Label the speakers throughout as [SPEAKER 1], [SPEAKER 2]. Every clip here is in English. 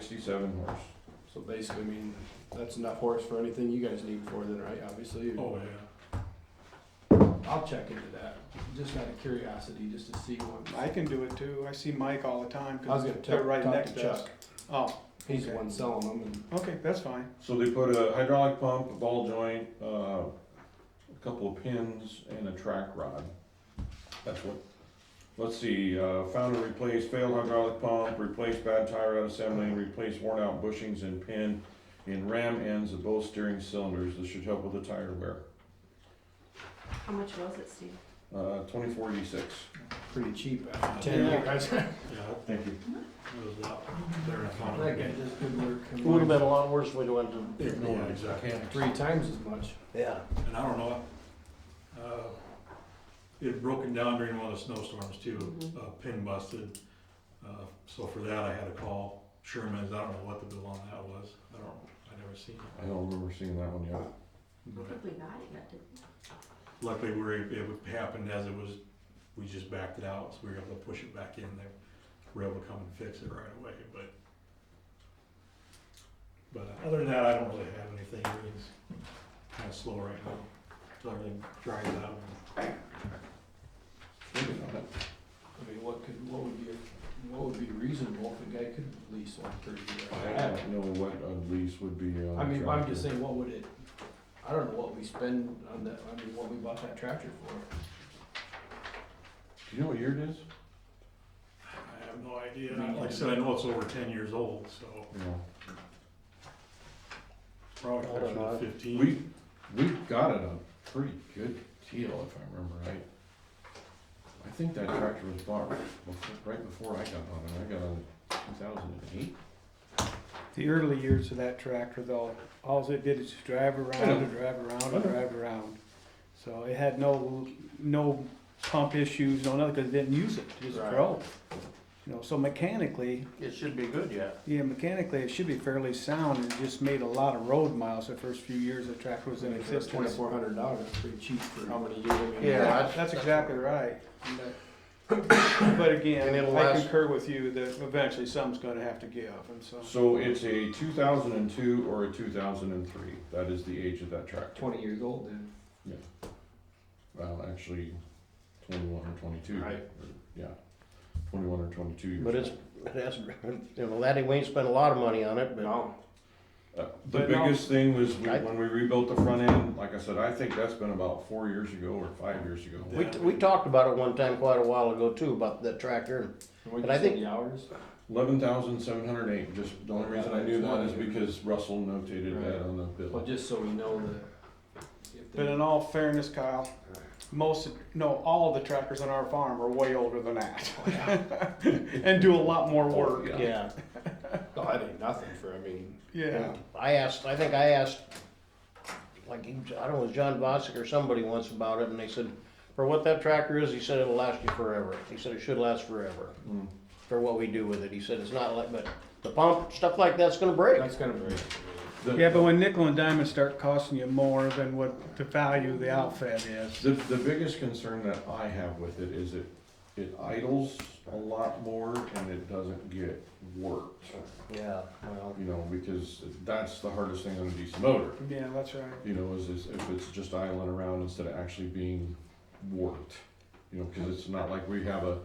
[SPEAKER 1] sixty-seven horse.
[SPEAKER 2] So basically, I mean, that's enough horse for anything you guys need for then, right? Obviously.
[SPEAKER 3] Oh, yeah.
[SPEAKER 2] I'll check into that, just out of curiosity, just to see
[SPEAKER 4] I
[SPEAKER 2] one.
[SPEAKER 4] can do it too. I see Mike all the time
[SPEAKER 2] I was
[SPEAKER 4] because
[SPEAKER 2] gonna
[SPEAKER 4] they're
[SPEAKER 2] tell,
[SPEAKER 4] right
[SPEAKER 2] talk
[SPEAKER 4] next
[SPEAKER 2] to
[SPEAKER 4] to us.
[SPEAKER 2] Chuck.
[SPEAKER 4] Oh,
[SPEAKER 2] He's the
[SPEAKER 4] Okay.
[SPEAKER 2] one selling them and
[SPEAKER 4] okay, that's fine.
[SPEAKER 1] So they put a hydraulic pump, a ball joint, uh, a couple of pins and a track rod. That's what, let's see, uh, found and replaced failed hydraulic pump, replaced bad tire rod assembly, replaced worn out bushings and pin in ram ends of both steering cylinders. This should help with the tire wear.
[SPEAKER 5] How much was it, Steve?
[SPEAKER 1] Uh, twenty-four eighty-six.
[SPEAKER 2] pretty cheap after ten
[SPEAKER 4] Yeah.
[SPEAKER 2] years.
[SPEAKER 3] Yeah,
[SPEAKER 1] Thank you.
[SPEAKER 3] it was a lot better than I thought.
[SPEAKER 2] That guy does good work. I mean,
[SPEAKER 6] Would have been a lot worse if we'd went to,
[SPEAKER 3] Yeah, exactly.
[SPEAKER 2] Three times as much.
[SPEAKER 6] yeah.
[SPEAKER 3] And I don't know, uh, it had broken down during one of the snowstorms too,
[SPEAKER 5] Mhm.
[SPEAKER 3] a pin busted. Uh, so for that, I had to call Sherman's, I don't know what the bill on that was, I don't, I never seen it.
[SPEAKER 1] I don't remember seeing that one yet.
[SPEAKER 3] But
[SPEAKER 5] we got it, but didn't.
[SPEAKER 3] Luckily, we were, it happened as it was, we just backed it out, so we were able to push it back in, they were able to come and fix it right away, but. But other than that, I don't really have anything, everything's kinda slow right now, till everything dries out.
[SPEAKER 1] Maybe not.
[SPEAKER 2] I mean, what could, what would be, what would be reasonable if a guy could lease one for a year?
[SPEAKER 1] I don't know what a lease would be uh, on.
[SPEAKER 2] I mean, I'm
[SPEAKER 1] tractor.
[SPEAKER 2] just saying, what would it, I don't know what we spend on that, I mean, what we bought that tractor for.
[SPEAKER 1] Do you know what year it is?
[SPEAKER 3] I have no idea, like I said, I know it's over ten years old, so
[SPEAKER 1] No.
[SPEAKER 3] it's probably
[SPEAKER 6] I don't
[SPEAKER 3] closer to
[SPEAKER 6] know.
[SPEAKER 3] fifteen.
[SPEAKER 1] We, we got it a pretty good deal, if I remember right. I think that tractor was bought befo- right before I got on it, I got on it two thousand and eight.
[SPEAKER 4] The early years of that tractor though, all it did is just drive around and drive around
[SPEAKER 1] I know.
[SPEAKER 4] and drive around. So it had no, no pump issues, no nothing, because it didn't use it, it just
[SPEAKER 2] Right.
[SPEAKER 4] drove. You know, so mechanically,
[SPEAKER 6] It should be good, yeah.
[SPEAKER 4] yeah, mechanically, it should be fairly sound, and it just made a lot of road miles the first few years the tractor was in existence.
[SPEAKER 2] Twenty-four hundred dollars, that's pretty cheap for how many years? I mean,
[SPEAKER 6] Yeah,
[SPEAKER 4] Yeah,
[SPEAKER 6] that's-
[SPEAKER 4] that's
[SPEAKER 6] that's
[SPEAKER 4] exactly right. But
[SPEAKER 6] And
[SPEAKER 4] again,
[SPEAKER 6] it'll
[SPEAKER 4] I
[SPEAKER 6] last-
[SPEAKER 4] concur with you that eventually something's gonna have to give, and so.
[SPEAKER 1] So it's a two thousand and two or a two thousand and three, that is the age of that tractor.
[SPEAKER 2] Twenty years old then.
[SPEAKER 1] Well, actually, twenty-one or twenty-two.
[SPEAKER 2] Right.
[SPEAKER 1] or- Yeah, twenty-one or twenty-two years.
[SPEAKER 6] But it's,
[SPEAKER 1] old.
[SPEAKER 6] it has, you know, that, we ain't spent a lot of money on it, but
[SPEAKER 2] No,
[SPEAKER 1] Uh, The
[SPEAKER 4] But no.
[SPEAKER 1] biggest thing was we-
[SPEAKER 6] I-
[SPEAKER 1] when we rebuilt the front end, like I said, I think that's been about four years ago or five years ago.
[SPEAKER 6] we, we talked about it one time quite a while ago too, about that tractor.
[SPEAKER 2] and
[SPEAKER 6] But I
[SPEAKER 2] what you
[SPEAKER 6] think-
[SPEAKER 2] said, the hours?
[SPEAKER 1] Eleven thousand seven hundred eight, just, the only reason I knew that is because Russell notated that on the
[SPEAKER 2] Well,
[SPEAKER 1] bill.
[SPEAKER 2] just so we know that. if
[SPEAKER 4] But in
[SPEAKER 2] they-
[SPEAKER 4] all fairness, Kyle, most, no, all the tractors on our farm are way older than that. And do a lot more work,
[SPEAKER 1] Yeah.
[SPEAKER 6] Yeah.
[SPEAKER 2] Oh, that ain't nothing for, I mean,
[SPEAKER 4] yeah.
[SPEAKER 6] I asked, I think I asked, like, I don't know, it was John Bosick or somebody once about it, and they said, for what that tractor is, he said it'll last you forever. He said it should last forever,
[SPEAKER 1] Mm.
[SPEAKER 6] for what we do with it. He said it's not like, but the pump, stuff like that's gonna break.
[SPEAKER 2] that's kind of very.
[SPEAKER 1] The-
[SPEAKER 4] Yeah, but when nickel and diamond start costing you more than what the value of the outfit is,
[SPEAKER 1] The, the biggest concern that I have with it is it, it idles a lot more and it doesn't get worked.
[SPEAKER 6] Yeah, well,
[SPEAKER 1] You know, because that's the hardest thing on a diesel motor,
[SPEAKER 4] yeah, that's right.
[SPEAKER 1] you know, is, is if it's just idling around instead of actually being worked. You know, cause it's not like we have a,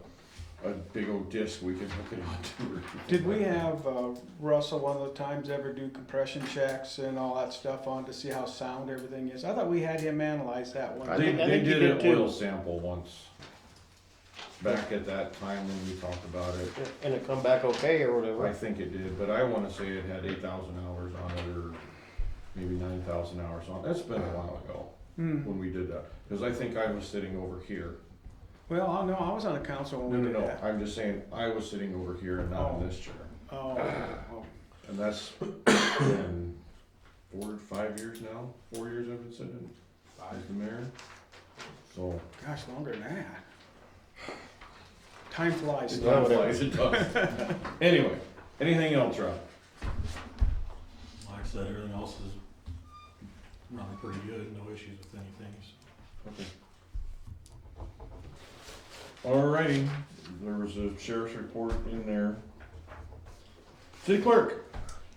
[SPEAKER 1] a big old disc we can hook it onto or. anything
[SPEAKER 4] Did we
[SPEAKER 1] like that.
[SPEAKER 4] have uh, Russell one of the times ever do compression checks and all that stuff on to see how sound everything is? I thought we had him analyze that one.
[SPEAKER 6] I
[SPEAKER 1] They,
[SPEAKER 6] think- I
[SPEAKER 1] they
[SPEAKER 6] think you
[SPEAKER 1] did
[SPEAKER 6] did
[SPEAKER 1] an
[SPEAKER 6] too.
[SPEAKER 1] oil sample once, back at that time when we talked about it.
[SPEAKER 6] and it come back okay or
[SPEAKER 1] I
[SPEAKER 6] whatever.
[SPEAKER 1] think it did, but I wanna say it had eight thousand hours on it, or maybe nine thousand hours on it. That's been a while ago
[SPEAKER 4] Hmm.
[SPEAKER 1] when we did that, cause I think I was sitting over here.
[SPEAKER 4] Well, I know, I was on the council
[SPEAKER 1] No,
[SPEAKER 4] when we
[SPEAKER 1] no,
[SPEAKER 4] did
[SPEAKER 1] no,
[SPEAKER 4] that.
[SPEAKER 1] I'm just saying, I was sitting over here and not
[SPEAKER 4] Oh.
[SPEAKER 1] in this chair.
[SPEAKER 4] Oh, oh,
[SPEAKER 1] And that's been four, five years now, four years I've been sitting as the mayor. So,
[SPEAKER 4] gosh, longer than that. Time flies.
[SPEAKER 1] It
[SPEAKER 6] Yeah,
[SPEAKER 1] does,
[SPEAKER 6] whatever.
[SPEAKER 1] it does. Anyway, anything else, Rob?
[SPEAKER 3] Like I said, everything else is running pretty good, no issues with anything, so.
[SPEAKER 1] Alrighty, there was a sheriff's report in there. City clerk?